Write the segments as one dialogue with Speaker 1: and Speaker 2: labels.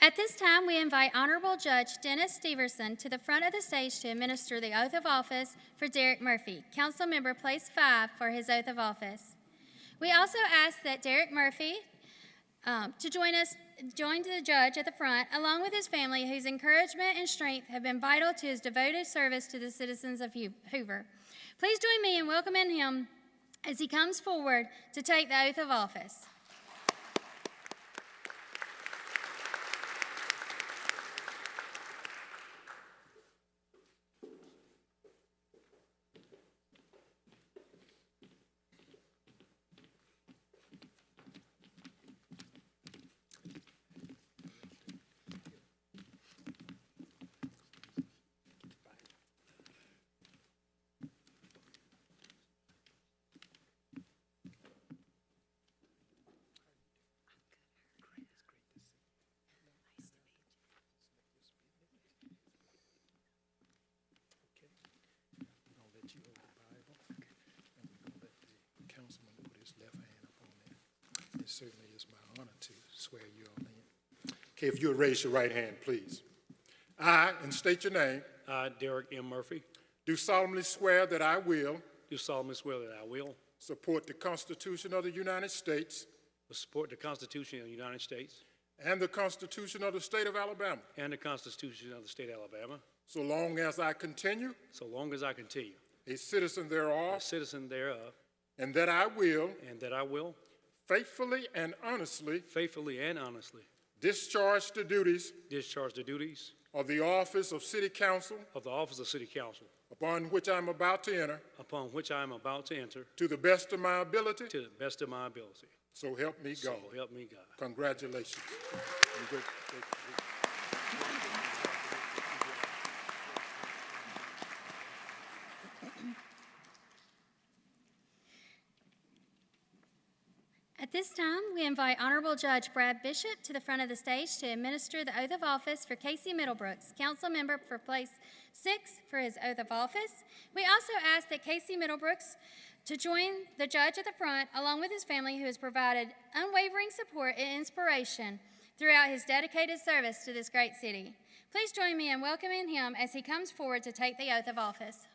Speaker 1: At this time, we invite Honorable Judge Dennis Steverson to the front of the stage to administer the oath of office for Derek Murphy, council member place five, for his oath of office. We also ask that Derek Murphy um, to join us, join the judge at the front, along with his family, whose encouragement and strength have been vital to his devoted service to the citizens of Hu- Hoover. Please join me in welcoming him as he comes forward to take the oath of office.
Speaker 2: I'll let you hold the Bible, and we're gonna let the councilman put his left hand up on that. It certainly is my honor to swear you all in. Okay, if you would raise your right hand, please. I, and state your name,
Speaker 3: I, Uh, Derek M. Murphy,
Speaker 2: do solemnly swear that I will
Speaker 3: do solemnly swear that I will
Speaker 2: support the Constitution of the United States
Speaker 3: support the Constitution of the United States
Speaker 2: and the Constitution of the State of Alabama,
Speaker 3: and the Constitution of the State of Alabama,
Speaker 2: so long as I continue
Speaker 3: so long as I continue
Speaker 2: a citizen
Speaker 3: a
Speaker 2: thereof,
Speaker 3: citizen thereof,
Speaker 2: and that I will
Speaker 3: and that I will
Speaker 2: faithfully and honestly
Speaker 3: faithfully and honestly
Speaker 2: discharge the duties
Speaker 3: discharge the duties
Speaker 2: of the office of City Council
Speaker 3: of the office of City Council
Speaker 2: upon which I'm about to enter,
Speaker 3: upon which I am about to enter
Speaker 2: to the best of my ability,
Speaker 3: to the best of my ability.
Speaker 2: so help me
Speaker 3: So
Speaker 2: God.
Speaker 3: help me God.
Speaker 2: Congratulations.
Speaker 1: At this time, we invite Honorable Judge Brad Bishop to the front of the stage to administer the oath of office for Casey Middlebrooks, council member for place six, for his oath of office. We also ask that Casey Middlebrooks to join the judge at the front, along with his family, who has provided unwavering support and inspiration throughout his dedicated service to this great city. Please join me in welcoming him as he comes forward to take the oath of office.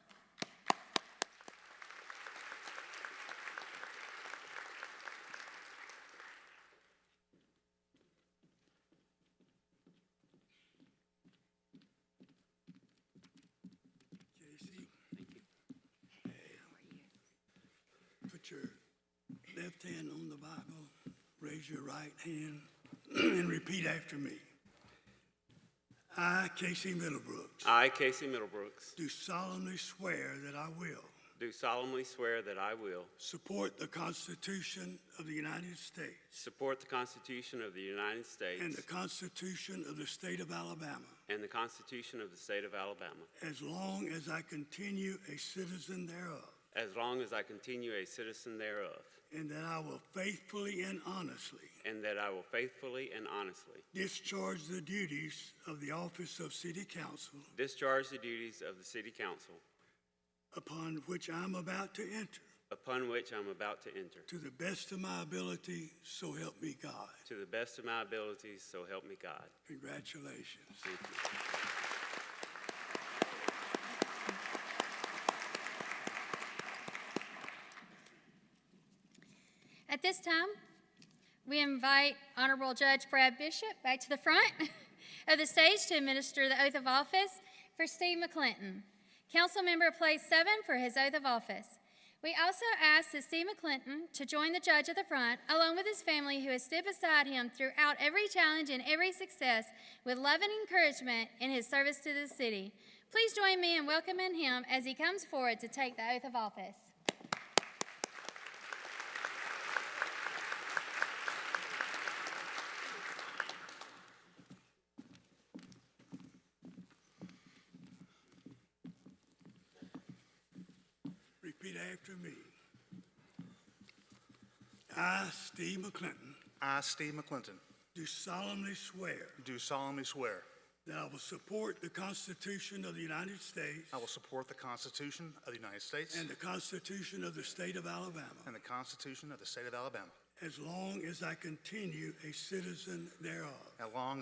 Speaker 4: Casey. Put your left hand on the Bible, raise your right hand, and repeat after me. I, Casey Middlebrooks,
Speaker 5: I, Casey Middlebrooks,
Speaker 4: do solemnly swear that I will
Speaker 5: do solemnly swear that I will
Speaker 4: support the Constitution of the United States
Speaker 5: support the Constitution of the United States
Speaker 4: and the Constitution of the State of Alabama
Speaker 5: and the Constitution of the State of Alabama,
Speaker 4: as long as I continue a citizen thereof,
Speaker 5: as long as I continue a citizen thereof,
Speaker 4: and that I will faithfully and honestly
Speaker 5: and that I will faithfully and honestly
Speaker 4: Discharge the duties of the office of city council
Speaker 5: discharge the duties of the City Council
Speaker 4: upon which I'm about to enter
Speaker 5: upon which I'm about to enter,
Speaker 4: to the best of my ability, so help me God.
Speaker 5: to the best of my abilities, so help me God.
Speaker 4: Congratulations.
Speaker 5: Thank you.
Speaker 1: At this time, we invite Honorable Judge Brad Bishop back to the front of the stage to administer the oath of office for Steve McClinton, Council Member Place 7 for his oath of office. We also ask that Steve McClinton to join the judge at the front, along with his family who has stood beside him throughout every challenge and every success with love and encouragement in his service to the city. Please join me in welcoming him as he comes forward to take the oath of office.
Speaker 4: Repeat after me. I, Steve McClinton,
Speaker 6: I, Steve McClinton,
Speaker 4: do solemnly swear
Speaker 6: do solemnly swear
Speaker 4: that I will support the Constitution of the United States
Speaker 6: I will support the Constitution of the United States
Speaker 4: and the Constitution of the State of Alabama
Speaker 6: and the Constitution of the State of Alabama,
Speaker 4: as long as I continue a citizen thereof.
Speaker 6: as long